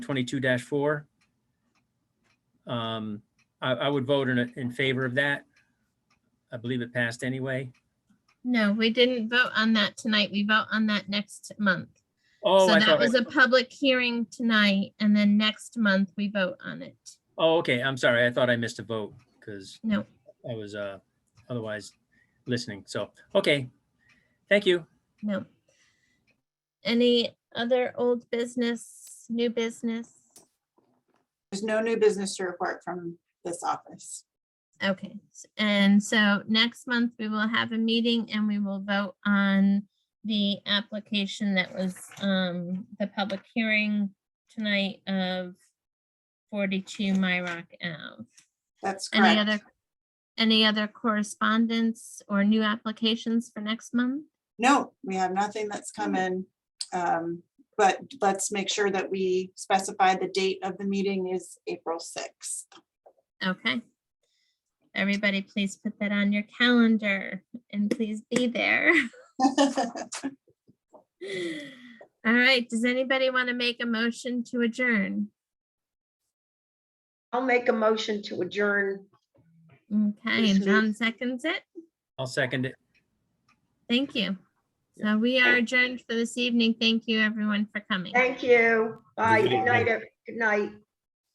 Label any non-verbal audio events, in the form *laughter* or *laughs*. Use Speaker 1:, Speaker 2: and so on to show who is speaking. Speaker 1: twenty-two four. Um, I, I would vote in, in favor of that. I believe it passed anyway.
Speaker 2: No, we didn't vote on that tonight. We vote on that next month.
Speaker 1: Oh,
Speaker 2: So
Speaker 1: I
Speaker 2: that
Speaker 1: thought,
Speaker 2: was a public hearing tonight and then next month we vote on it.
Speaker 1: oh, okay, I'm sorry. I thought I missed a vote because
Speaker 2: No,
Speaker 1: I was, uh, otherwise listening. So, okay. Thank you.
Speaker 2: no. Any other old business, new business?
Speaker 3: There's no new business to report from this office.
Speaker 2: Okay, s- and so next month we will have a meeting and we will vote on the application that was um the public hearing tonight of forty-two Myrock Ave.
Speaker 3: That's
Speaker 2: Any other,
Speaker 3: correct.
Speaker 2: any other correspondence or new applications for next month?
Speaker 3: No, we have nothing that's come in. Um, But let's make sure that we specify the date of the meeting is April *laughs* 6th.
Speaker 2: Okay. Everybody, please put that on your calendar and please be there. *laughs* All right, does anybody want to make a motion to adjourn?
Speaker 4: I'll make a motion to adjourn.
Speaker 2: Okay,
Speaker 4: Yes,
Speaker 2: and
Speaker 4: ma'am.
Speaker 2: John seconds it.
Speaker 1: I'll second it.
Speaker 2: Thank you. So we are adjourned for this evening. Thank you, everyone, for coming.
Speaker 4: Thank you. Bye.
Speaker 5: Good
Speaker 4: Good night. ev- Good night.